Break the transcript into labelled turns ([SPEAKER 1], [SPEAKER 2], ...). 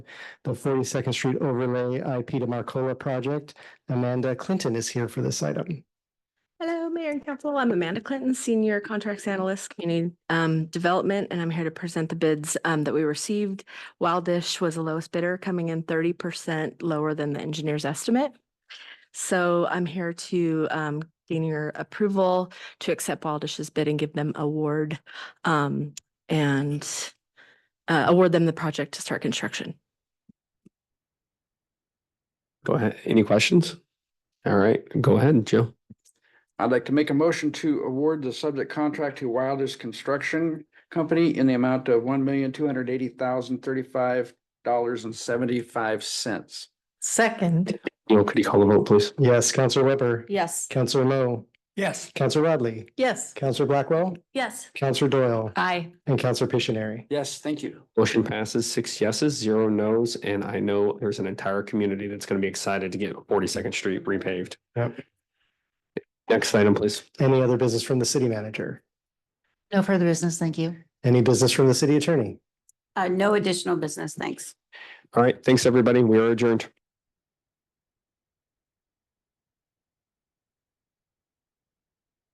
[SPEAKER 1] the Forty Second Street Overlay IP to Marcola project. Amanda Clinton is here for this item.
[SPEAKER 2] Hello, Mayor and Council. I'm Amanda Clinton, Senior Contracts Analyst, Community um, Development, and I'm here to present the bids um, that we received. Wildish was the lowest bidder, coming in thirty percent lower than the engineer's estimate. So I'm here to um, gain your approval to accept Wildish's bid and give them award um, and uh, award them the project to start construction.
[SPEAKER 3] Go ahead. Any questions? All right, go ahead, Joe.
[SPEAKER 4] I'd like to make a motion to award the subject contract to Wilders Construction Company in the amount of one million, two hundred eighty thousand, thirty-five dollars and seventy-five cents.
[SPEAKER 5] Second,
[SPEAKER 3] Neil, could you call the vote, please?
[SPEAKER 1] Yes, Counselor Weber,
[SPEAKER 5] yes.
[SPEAKER 1] Counselor Lowe,
[SPEAKER 6] Yes.
[SPEAKER 1] Counselor Rodley,
[SPEAKER 5] Yes.
[SPEAKER 1] Counselor Blackwell,
[SPEAKER 2] Yes.
[SPEAKER 1] Counselor Doyle,
[SPEAKER 2] Aye.
[SPEAKER 1] and Counselor Pictionary.
[SPEAKER 4] Yes, thank you.
[SPEAKER 3] Motion passes six yeses, zero nos, and I know there's an entire community that's going to be excited to get Forty Second Street repaved.
[SPEAKER 1] Yep.
[SPEAKER 3] Next item, please.
[SPEAKER 1] Any other business from the city manager?
[SPEAKER 7] No further business, thank you.
[SPEAKER 1] Any business from the city attorney?
[SPEAKER 8] Uh, no additional business, thanks.
[SPEAKER 3] All right, thanks, everybody. We are adjourned.